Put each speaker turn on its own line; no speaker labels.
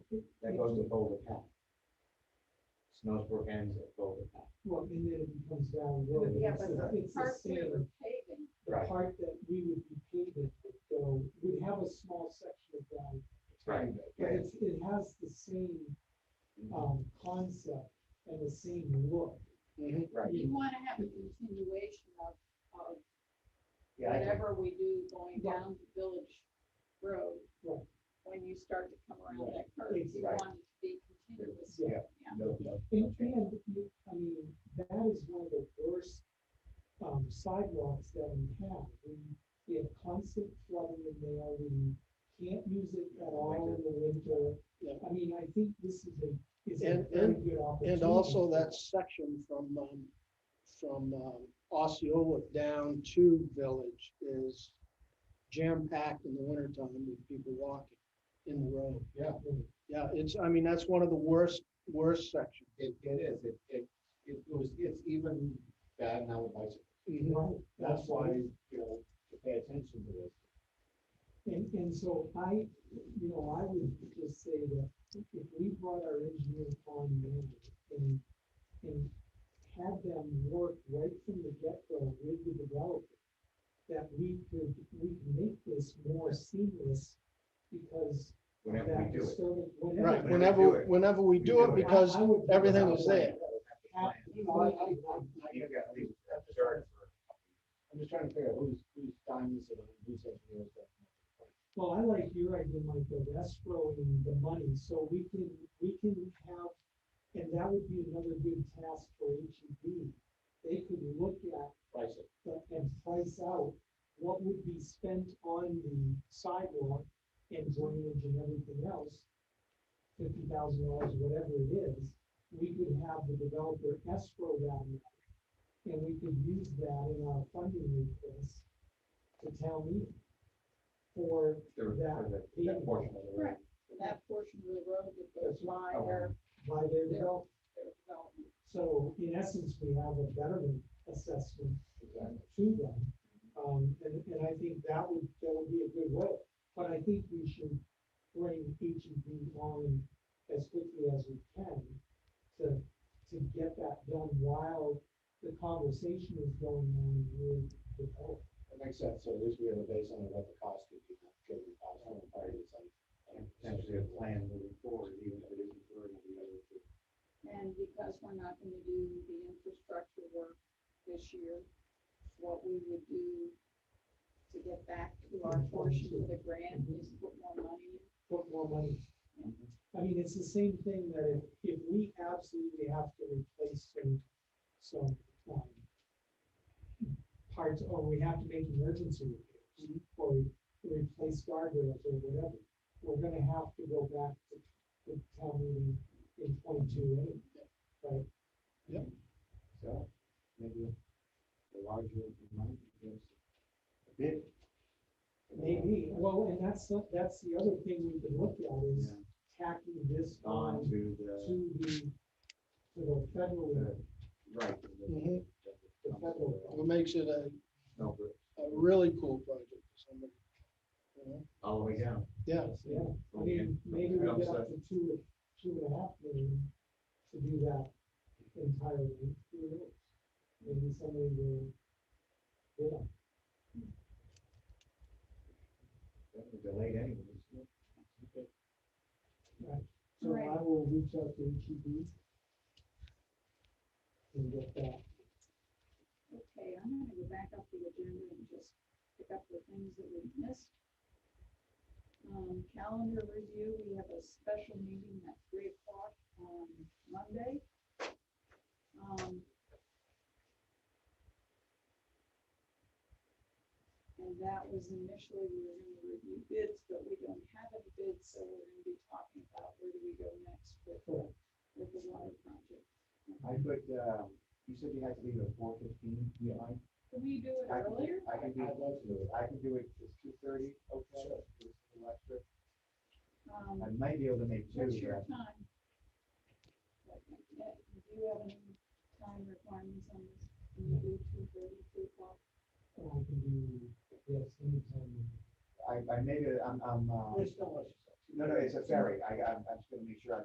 That goes to Boulder County. Snowsburg ends at Boulder County.
Well, and then it comes down. the road.
Yeah,
It's
but
a-
the
it's a
part we
standard.
were paving,
the
Right.
part that we would be paving would go, would have a small section of ground. But
Yeah.
it's, it has the same, um, concept and the same look.
Mhm, Right,
you wanna have a continuation of, of
yeah, I can-
whatever we do going
Right.
down the village road.
Right.
When you start to come around
Right.
that curve, you
Right.
want it to be continuous.
Yeah.
no, no,
And,
okay.
and, you- I mean, that is one of the worst, um, sidewalks that we have. We, we have constant flooding in there, we can't use it at all in the winter.
Yeah.
I mean, I think this is a, is a
And-
very
and-
good opportunity.
And also
for
that
us.
section from, um, from, um, Osceola down to Village is jam-packed in the wintertime with people walking in the road.
Yeah.
Yeah, it's, I mean, that's one of the worst, worst sections.
It, it is, it, it, it was, it's even bad now with bicycles.
Right,
That's why,
absolutely.
you know, to pay attention to this.
And, and so I, you know, I would just say that if we brought our engineer on now and, and had them work right from the get-go with the developer, that we could, we could make this more seamless because of
Whenever
that
we do it.
disturbance.
Right,
we do
whenever,
it.
whenever we
We
do it,
do it.
because
I- I would-
everything was there.
Have-
You
I-
know,
I- I-
you got these absurd for- I'm just trying to figure out who's, who's time is it, on, who's engineers that.
Well, I like your idea, Mike, of escrowing the money, so we can, we can have, and that would be another good task for H E B. They could look at
Price it.
the- and price out what would be spent on the sidewalk and drainage and everything else. Fifty thousand dollars, whatever it is, we could have the developer escrow that. money, And we could use that in our funding request to town meeting. For
the- for the- That portion of the road.
Right. That portion of the road that goes
That's
by
Oh,
their,
by their
Yeah.
development.
their development.
So in essence, we have a betterment assessment
Exactly.
to them. Um, and, and I think that would, that would be a good way, but I think we should bring H E B on as quickly as we can to, to get that done while the conversation is going on with the public.
That makes sense, so at least we have a baseline of what the cost could be, not getting the cost on the party, it's like. And potentially a plan moving forward, even if it isn't for the other two.
And because we're not gonna do the infrastructure work this year, what we would do to get back to our portion of the grant is put more money in.
Put more money. I mean, it's the same thing that if, if we absolutely have to replace some, some, um, parts, or we have to make emergency repairs, or re- replace guardrails or whatever, we're gonna have to go back to, to town meeting in twenty-two anyway, right?
So, maybe the larger the amount gives a bit.
Maybe, well, and that's, the- that's the other thing we can look at is
Yeah.
tacking this
On
on
to the,
to the, to the federal,
right.
Mhm.
the federal.
it makes it a,
No, but
a really cool project. for somebody, you know?
all the way down.
Yeah,
Yeah, I mean, maybe we
Yeah,
get
so-
up to two, two and a half million to do that entirely, who knows? Maybe somebody will, yeah,
that was Delayed anyways. Okay.
right. So
Right.
I will reach out to H E B. And get that,
Okay, I'm gonna go back up the agenda and just pick up the things that we missed. Um, calendar review, we have a special meeting at three o'clock on Monday. Um. And that was initially, we were gonna review bids, but we don't have any bids, so we're gonna be talking about where do we go next with, the- with the water project.
I could, uh, you said you had to leave at four fifteen, you mind?
Can we do it
I can-
earlier?
I can do, I'd love to do it, I can do it, it's two thirty, okay? It's electric.
Um,
I might be able to make two,
What's your
but
time? Like, uh, Do you have any time requirements on this? Can you do two thirty, three o'clock?
and I can do, yes, anytime.
I, I maybe, I'm, I'm, uh,
don't let yourself.
No, no, it's a ferry. I, I'm, I'm just gonna make sure